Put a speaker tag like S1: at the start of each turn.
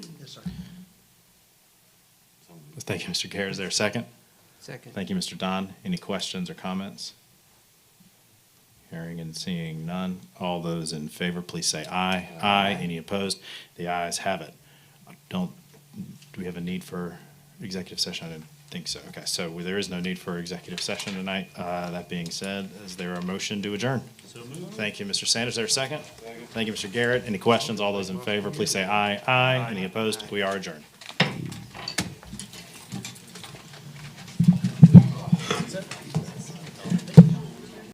S1: Thank you, Mr. Gare. Is there a second?
S2: Second.
S1: Thank you, Mr. Don. Any questions or comments? Hearing and seeing none. All those in favor, please say aye. Aye. Any opposed? The ayes have it. I Don't, do we have a need for executive session? I didn't think so. Okay, so there is no need for executive session tonight. Uh, That being said, is there a motion to adjourn? Thank you, Mr. Sanders. Is there a second? Thank you, Mr. Garrett. Any questions? All those in favor, please say aye. Aye. Any opposed? We are adjourned.